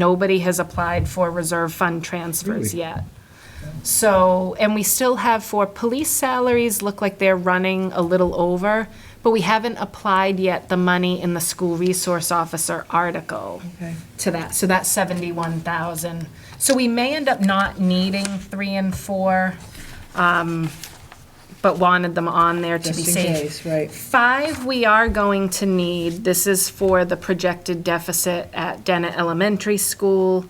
Nobody has applied for reserve fund transfers Really? yet. So, and we still have for police salaries, look like they're running a little over, but we haven't applied yet the money in the school resource officer article Okay. to that, so that's seventy-one thousand. So we may end up not needing three and four, um, but wanted them on there to be Just in safe. case, right. Five, we are going to need, this is for the projected deficit at Dena Elementary School.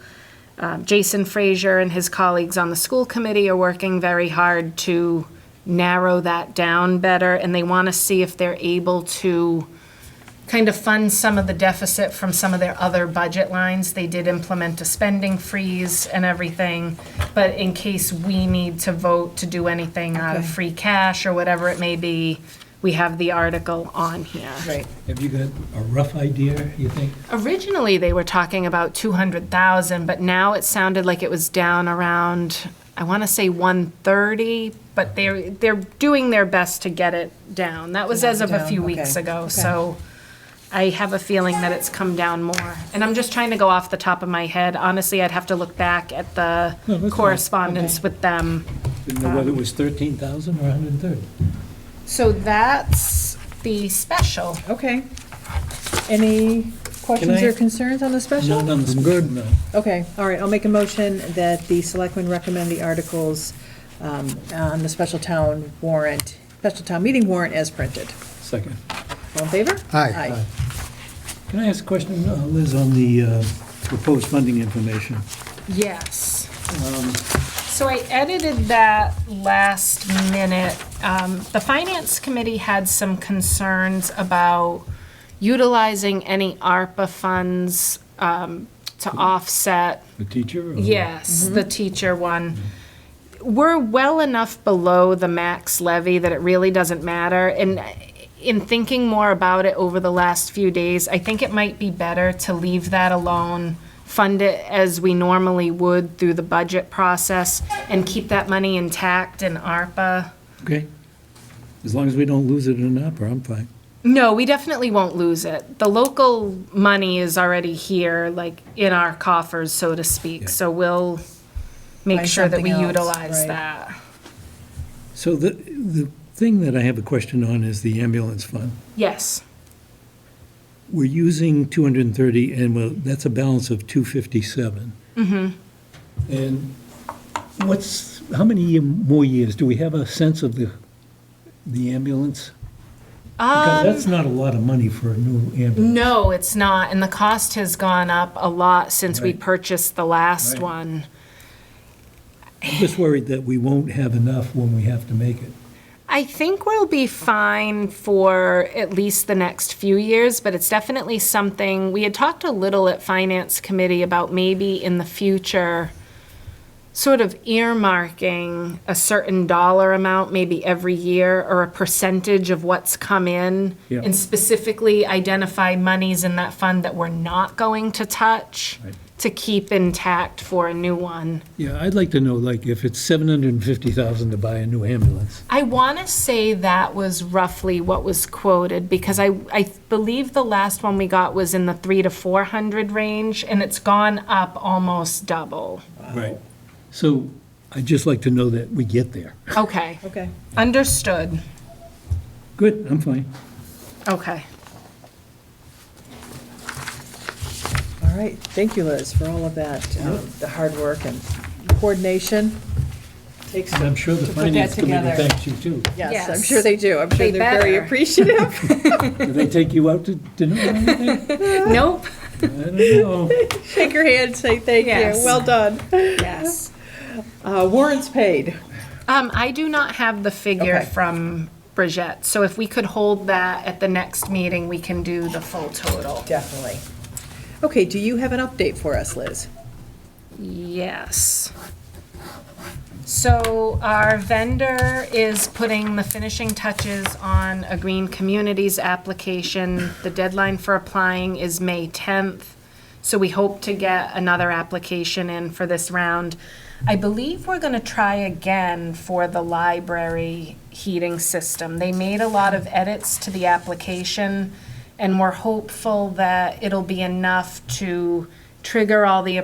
Um, Jason Frazier and his colleagues on the school committee are working very hard to narrow that down better, and they want to see if they're able to kind of fund some of the deficit from some of their other budget lines. They did implement a spending freeze and everything, but in case we need to vote to do anything out of Okay. free cash or whatever it may be, we have the article on here. Right. Have you got a rough idea, you think? Originally, they were talking about 200,000, but now it sounded like it was down around, I want to say 130, but they're, they're doing their best to get it down. That was knock as it of a down, few okay, weeks ago, okay. so I have a feeling that it's come down more. And I'm just trying to go off the top of my head. Honestly, I'd have to look back at the No, that's fine. correspondence with them. Didn't know whether it was 13,000 or 130. So that's the special. Okay. Any questions I- or concerns on the special? None on the. Good. No. Okay, all right, I'll make a motion that the selectmen recommend the articles um, on the special town warrant, special town meeting warrant as printed. Second. All in favor? Aye. Aye. Can I ask a question, uh, Liz, on the uh, proposed funding information? Yes. So I edited that last minute. Um, The Finance Committee had some concerns about utilizing any ARPA funds um, to offset The teacher? or- Yes, Mm-hmm. the teacher one. We're well enough below the max levy that it really doesn't matter. And in thinking more about it over the last few days, I think it might be better to leave that alone, fund it as we normally would through the budget process, and keep that money intact in ARPA. Okay. As long as we don't lose it in opera, I'm fine. No, we definitely won't lose it. The local money is already here, like in our coffers, so to speak, so we'll make Buy sure that we something else, utilize right. that. So the, the thing that I have a question on is the ambulance fund. Yes, We're using 230, and well, that's a balance of 257. Mm-hmm. And what's, how many ye- more years? Do we have a sense of the, the ambulance? Um, Because that's not a lot of money for a new ambulance. no, it's not, and the cost has gone up a lot since we Right. purchased the last Right. one. I'm just worried that we won't have enough when we have to make it. I think we'll be fine for at least the next few years, but it's definitely something, we had talked a little at Finance Committee about maybe in the future, sort of earmarking a certain dollar amount, maybe every year, or a percentage of what's come in, Yeah. and specifically identify monies in that fund that we're not going to touch, Right. to keep intact for a new one. Yeah, I'd like to know, like, if it's 750,000 to buy a new ambulance. I want to say that was roughly what was quoted because I, I believe the last one we got was in the three to 400 range and it's gone up almost double. Right. So I'd just like to know that we get there. Okay, Okay. understood. Good, I'm fine. Okay. All right, thank you, Liz, for all of that, um, the hard work and coordination. Takes And I'm sure to the put that finance committee together. thanks you, too. Yes, I'm Yes. sure they do. I'm They sure they're very better. appreciative. Do they take you out to dinner or anything? Nope. I don't know. Shake your hand, say thank you, Yes. well done. Yes. Uh, Warrants paid. Um, I do not have the figure Okay. from Bridgette, so if we could hold that at the next meeting, we can do the full total. Definitely. Okay, do you have an update for us, Liz? Yes. So our vendor is putting the finishing touches on a Green Communities application. The deadline for applying is May 10th, so we hope to get another application in for this round. I believe we're going to try again for the library heating system. They made a lot of edits to the application, and we're hopeful that it'll be enough to trigger all the